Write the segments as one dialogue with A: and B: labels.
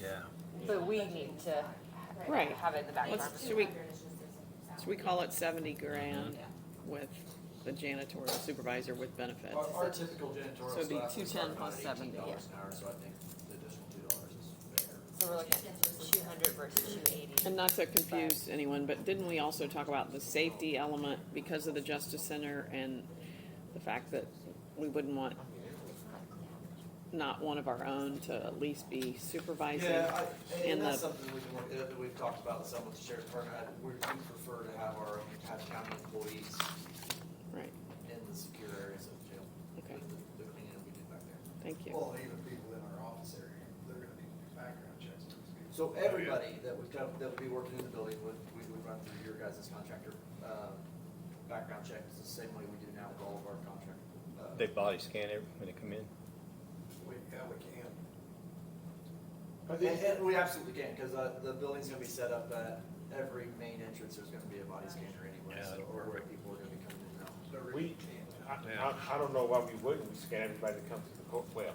A: Yeah.
B: But we need to
C: Right.
B: have it in the back of our
C: Let's, should we, should we call it seventy grand with the janitorial supervisor with benefits?
D: Our, our typical
C: So it'd be
D: janitorial staff is
C: 210
D: starting
C: plus
D: around eighteen
C: 70,
D: dollars an hour, so I think the additional two dollars is fair.
B: So we're looking at two hundred versus two eighty.
C: And not to confuse anyone, but didn't we also talk about the safety element because of the Justice Center and the fact that we wouldn't want not one of our own to at least be supervising?
D: Yeah, I,
C: in
D: and that's
C: the-
D: something we can look at, that we've talked about with some with the sheriff's department, I- we, we prefer to have our own Hatch County employees
C: Right,
D: in the secure areas of jail.
C: Okay.
D: with The the cleaning that we do back there.
C: thank you.
E: Well, even people in our office area, they're gonna need to do background checks. on these people.
D: So everybody that would come, that would be working in the building would, we would run through your guys' contractor, uh, background checks, the same way we do now with all of our contract. uh,
A: They body scan it when they come in?
E: We, yeah, we can.
D: And, and we absolutely can, cause, uh, the building's gonna be set up at every main entrance, there's gonna be a body scanner anyway,
A: Yeah,
D: so,
A: that'll
D: or where
A: work.
D: people are gonna be coming in and out.
E: There
F: We,
E: really can.
F: I, I, I don't know why we wouldn't, we scan everybody that comes to the court, well,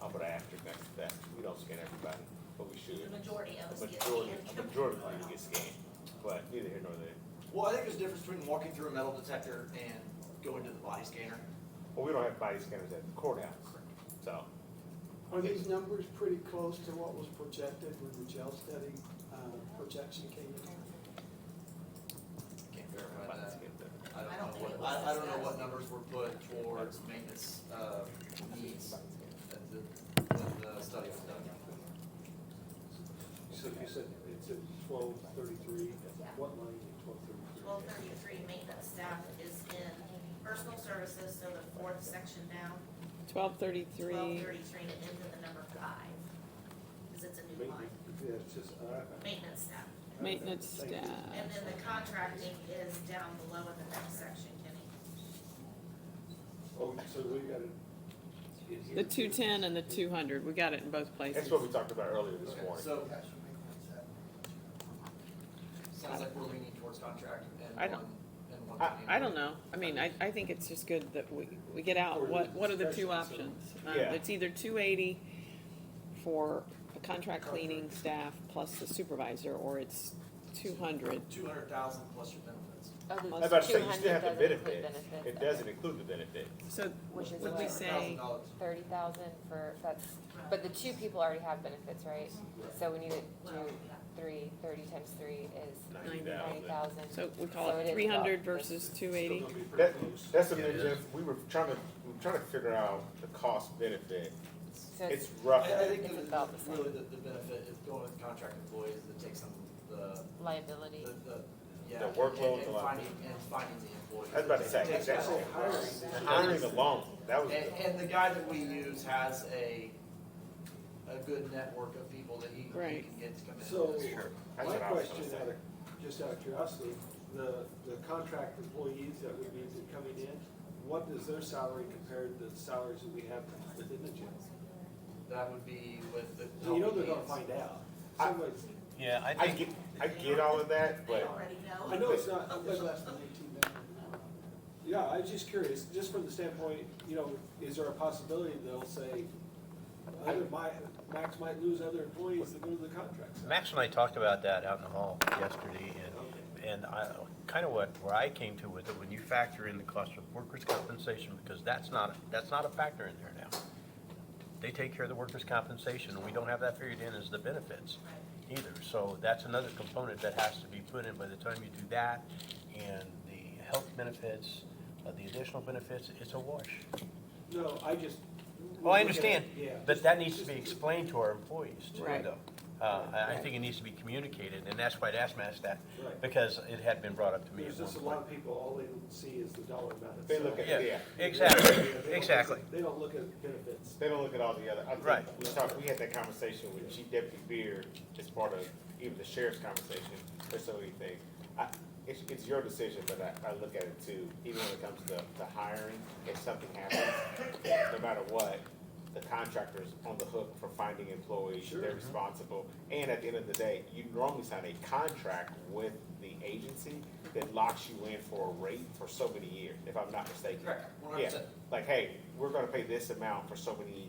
F: I'm gonna ask you next to that, we don't scan everybody, but we should.
G: The majority of us
F: A
G: get
F: majority,
G: scanned.
F: a majority of people get scanned, but neither here nor there,
D: Well, I think there's a difference between walking through a metal detector and going to the body scanner.
F: well, we don't have body scanners at the courthouse, so.
H: Are these numbers pretty close to what was projected when the jail study uh, projection came in?
D: Can't verify
F: body
D: that.
F: scan them.
D: I
G: I
D: don't
G: don't
D: know
G: think
D: what,
G: it was
D: I, I don't know what
G: discussed.
D: numbers were put towards maintenance, uh, needs at the, when the study was done.
I: So you said it's at twelve thirty-three, what line is twelve thirty-three?
G: Twelve thirty-three, maintenance staff is in personal services, so the fourth section down,
C: Twelve
G: twelve
C: thirty-three,
G: thirty-three, and into the number five, because it's a new line,
I: Yeah, it's just, uh,
G: maintenance staff.
C: maintenance
I: Thank you.
C: staff.
G: And then the contracting is down below in the next section, Kenny.
I: oh, so we got it. in here.
C: The two-ten and the two-hundred, we got it in both places.
F: That's what we talked about earlier this
D: Okay,
F: morning.
D: So,
E: Yeah, should we make that?
D: sounds like we're leaning towards contract
C: I
D: and
C: don't-
D: one, and one.
C: I, I
D: cleaning.
C: don't know. I mean, I, I think it's just good that we, we get out, what, what are the two options? Um,
F: Yeah.
C: It's either two eighty for a contract cleaning staff plus the supervisor, or it's two hundred.
D: Two hundred thousand plus your benefits.
B: Oh,
C: I
F: I was about to say, you still have the benefits, it doesn't include the benefits.
C: So
B: Which is
C: would we
B: what?
C: say,
D: $100,000.
B: Thirty thousand for, that's, but the two people already have benefits, right? So we need to do three, thirty times three is
F: Ninety
B: ninety
F: thousand.
B: thousand.
C: so we call
B: So it is
C: it
B: about
C: three hundred
B: the-
C: versus two eighty?
I: Still gonna be
F: That,
I: pretty close.
F: that's the
A: Yeah, it
F: thing,
A: is.
F: Jeff, we were trying to, we were trying to figure out the cost benefit,
B: So
F: it's
B: it's,
D: I,
F: roughly.
D: I think
B: It's
D: the-
B: about the same.
D: really the, the benefit is going with contract employees that takes some, the,
B: liability.
D: the, the, yeah.
F: The workload's
D: and-
F: a lot.
D: And finding, and finding the employees.
F: I was about to say,
D: It takes
F: that's-
D: about-
F: Hiring alone, that was.
D: And, and the guy that we use has a, a good network of people that he, he
C: Right.
D: can get to come in.
I: So, my
F: That's what I was
I: question,
F: gonna
I: out
F: say.
I: of- just out of curiosity, the, the contract employees that we need to coming in, what does their salary compare to the salaries that we have within the jail?
D: That would be with the.
I: So you know they're gonna
D: companies.
I: find out.
F: I-
I: Somebody's-
A: Yeah,
F: I get, I get all of that,
G: They
F: but
G: already know.
I: I know it's not,
H: It was less than eighteen thousand an hour.
I: Yeah, I was just curious, just from the standpoint, you know, is there a possibility they'll say, other, my, Max might lose other employees that go to the contracts?
A: Max and I talked about that out in the hall yesterday, and, and I, kind of what, where I came to with it, when you factor in the cost of workers' compensation, because that's not, that's not a factor in there now. They take care of the workers' compensation, and we don't have that figured in as the benefits either, so that's another component that has to be put in by the time you do that, and the health benefits, uh, the additional benefits, it's a wash.
I: No, I just.
A: Well, I understand,
I: Yeah.
A: but that needs to be explained to our employees too,
C: Right.
A: though. Uh, I, I think it needs to be communicated, and that's why I asked Matt that,
I: Right.
A: because it had been brought up to me
I: There's
A: at
I: just a
A: one
I: lot
A: point.
I: of people, all they see is the dollar amount.
F: They look at-
I: itself.
A: Yeah,
F: Yeah.
I: They
A: exactly,
I: don't look at-
A: exactly.
I: They don't look at benefits.
F: they don't look at all the other, I
A: Right.
F: think, we talked, we had that conversation with Chief Deputy Beard as part of even the sheriff's conversation, or so he thinks. I, it's, it's your decision, but I, I look at it too, even when it comes to, to hiring, if something happens, no matter what, the contractor's on the hook for finding employees,
I: Sure.
F: they're responsible. And at the end of the day, you normally sign a contract with the agency that locks you in for a rate for so many years, if I'm not mistaken.
D: Correct, one hundred
F: Yeah,
D: percent.
F: like, hey, we're gonna pay this amount for so many